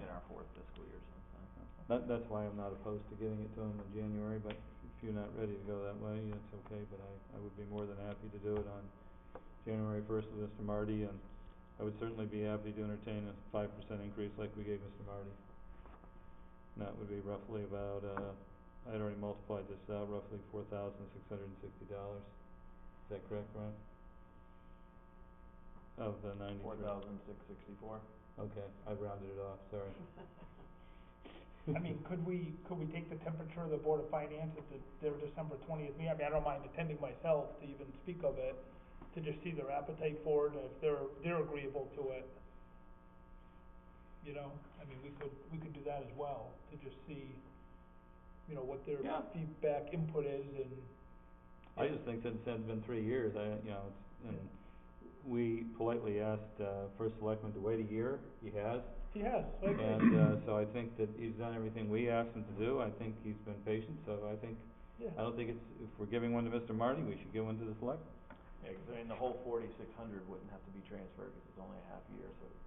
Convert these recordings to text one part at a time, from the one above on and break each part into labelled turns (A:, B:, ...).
A: fourth fiscal year sometime.
B: That, that's why I'm not opposed to getting it to them in January, but if you're not ready to go that way, that's okay, but I, I would be more than happy to do it on January first with Mr. Marty, and I would certainly be happy to entertain a five percent increase like we gave Mr. Marty. And that would be roughly about, uh, I had already multiplied this out, roughly four thousand six hundred and sixty dollars. Is that correct, Ron? Of the ninety-three.
A: Four thousand six sixty-four.
B: Okay, I rounded it off, sorry.
C: I mean, could we, could we take the temperature of the Board of Finance at the- their December twentieth meeting? I mean, I don't mind attending myself to even speak of it, to just see their appetite for it, and if they're, they're agreeable to it. You know, I mean, we could, we could do that as well, to just see, you know, what their
B: Yeah.
C: feedback, input is, and.
B: I just think since it's been three years, I, you know, it's, and we politely asked, uh, first selectman to wait a year, he has.
C: Yes, I agree.
B: And, uh, so I think that he's done everything we asked him to do, I think he's been patient, so I think,
C: Yeah.
B: I don't think it's, if we're giving one to Mr. Marty, we should give one to the select.
A: Yeah, 'cause I mean, the whole forty-six hundred wouldn't have to be transferred, 'cause it's only a half year, so it's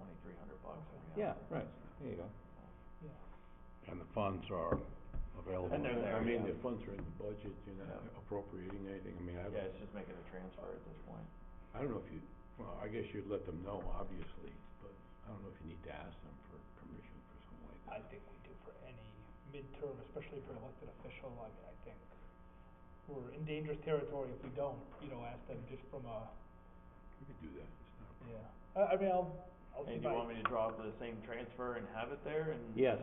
A: twenty-three hundred bucks every half.
B: Yeah,
A: year.
B: right, there you go.
C: Yeah.
D: And the funds are available.
A: And they're there,
D: I mean,
A: yeah.
D: the funds are in the budget, you're not
A: Yeah.
D: appropriating anything, I mean, I
A: Yeah,
D: don't,
A: it's just making a transfer at this point.
D: I don't know if you, well, I guess you'd let them know, obviously, but I don't know if you need to ask them for permission for something like
C: I
D: that.
C: think we do for any midterm, especially for elected official, I mean, I think we're in dangerous territory if we don't, you know, ask them just from a,
D: You could do that, it's not,
C: yeah. I, I mean, I'll, I'll see
A: And
C: if
A: do you
C: I-
A: want me to draw up the same transfer and have it there and?
B: Yes,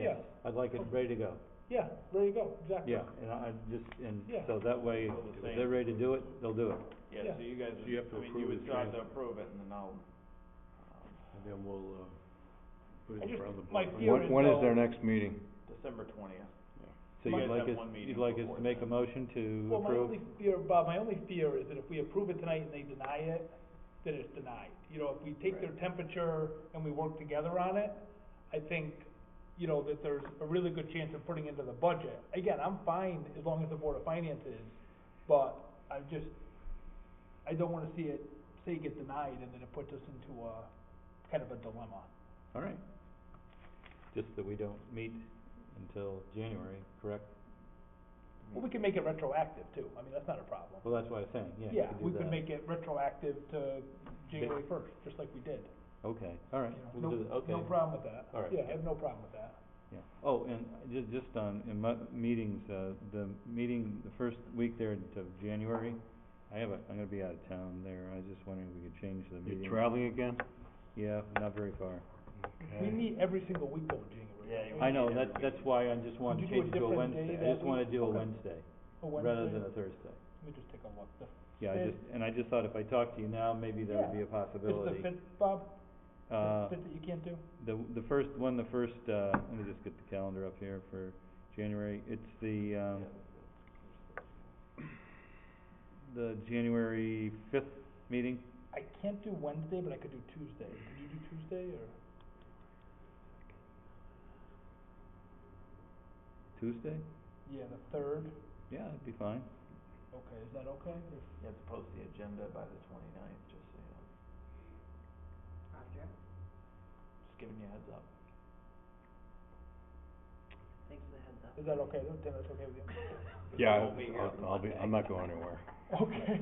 B: yes,
C: Yeah.
B: I'd like it ready to go,
C: yeah, there you go, exactly.
B: yeah, and I, I just, and
C: Yeah.
B: so that way,
A: Well, the
B: if
A: same-
B: they're ready to do it, they'll do it.
A: Yeah, so you guys,
D: So
A: would-
D: you have to
A: I mean, you
D: approve
A: would
D: the
A: still have to
D: transfer.
A: approve it and then I'll, um,
D: and then we'll, uh, put
C: I
D: it in
C: just-
D: front of the
C: my
D: board.
C: fear- When- when is their
B: next meeting?
A: December twentieth.
B: So
A: You
B: you'd
A: guys
B: like
A: have
B: us,
A: one meeting
B: you'd like us
A: before
B: to make a
A: then.
B: motion to
C: Well, my
B: approve?
C: only fear, Bob, my only fear is that if we approve it tonight and they deny it, then it's denied. You know, if we take their
A: Right.
C: temperature and we work together on it, I think, you know, that there's a really good chance of putting into the budget. Again, I'm fine as long as the Board of Finance is, but I just, I don't wanna see it, say get denied and then it puts us into a, kind of a dilemma.
B: All right. Just that we don't meet until January, correct?
C: Well, we can make it retroactive too, I mean, that's not a problem.
B: Well, that's what I was saying, yeah, you
C: Yeah,
B: could do
C: we could
B: that.
C: make it retroactive to January first, just like we did.
B: Okay, all right,
C: you know,
B: we'll do that, okay.
C: No, no problem with that.
B: All right.
C: Yeah, I have no problem with that.
B: Yeah, oh, and ju- just on, in mu- meetings, uh, the meeting, the first week there of January, I have a, I'm gonna be out of town there, I was just wondering if we could change the meeting.
D: You traveling again?
B: Yeah, not very far.
C: We
D: Okay.
C: meet every single week though, in January.
A: Yeah,
C: don't
A: We
C: we?
B: I
A: need
B: know,
A: every
B: that,
A: week.
B: that's why I just wanted to
C: Could you do a
B: change it to a
C: different day
B: Wednesday, I
C: that
B: just wanna
C: week?
B: do a
C: Okay.
B: Wednesday,
C: A
B: rather
C: Wednesday?
B: than a Thursday.
C: Let me just take a look. The
B: Yeah, I
C: fifth-
B: just, and I just thought if I talked to you now, maybe there would be
C: Yeah.
B: a possibility.
C: Is the fifth, Bob?
B: Uh,
C: The fifth that you can't do?
B: The, the first one, the first, uh, let me just get the calendar up here for January, it's the, um, the January fifth meeting,
C: I can't do Wednesday, but I could do Tuesday. Can you do Tuesday or?
B: Tuesday?
C: Yeah, the third.
B: Yeah, that'd be fine.
C: Okay, is that okay? If-
A: You have to post the agenda by the twenty-ninth, just so you know.
E: Roger,
A: Just giving you a heads up.
E: thanks for the heads up.
C: Is that okay? Then that's okay with you?
D: Yeah,
A: won't be here
D: I'll,
A: on
D: I'll be, I'm
A: Monday.
D: not going anywhere.
C: Okay.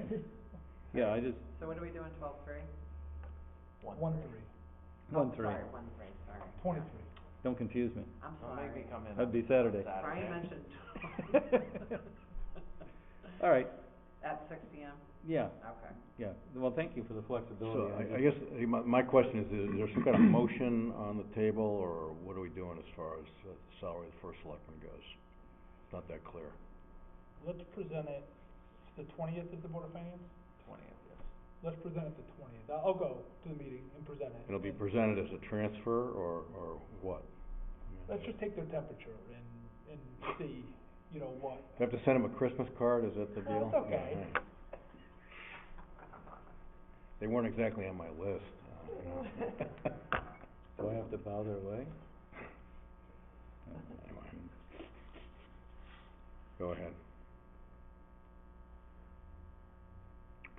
B: Yeah, I just,
E: So what are we doing, twelve three?
C: One, three,
B: one, three,
E: Sorry, one three, sorry.
C: twenty-three.
B: don't confuse me.
E: I'm
A: Don't make me
E: sorry.
A: come in.
B: That'd be
A: on
B: Saturday.
E: Brian mentioned twelve.
B: All right,
E: At six P M,
B: yeah,
E: okay.
B: yeah, well, thank you for the
D: So
B: flexibility.
D: I, I guess, eh, my, my question is, is there some kind of motion on the table, or what are we doing as far as uh, salary of the first selectman goes? It's not that clear.
C: Let's present it, the twentieth is the Board of Finance?
A: Twentieth, yes.
C: Let's present it the twentieth. I'll go to the meeting and present it.
D: It'll be
C: and-
D: presented as a transfer, or, or what?
C: Let's just take their temperature and, and see, you know, what.
D: Do I have to send him a Christmas card, is that the
C: No,
D: deal?
C: it's okay.
D: Yeah, all right. They weren't exactly on my list, uh, you know.
B: Do I have to bow their way?
D: Anyway. Go ahead.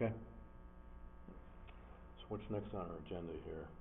D: Okay. So what's next on our agenda here? Um,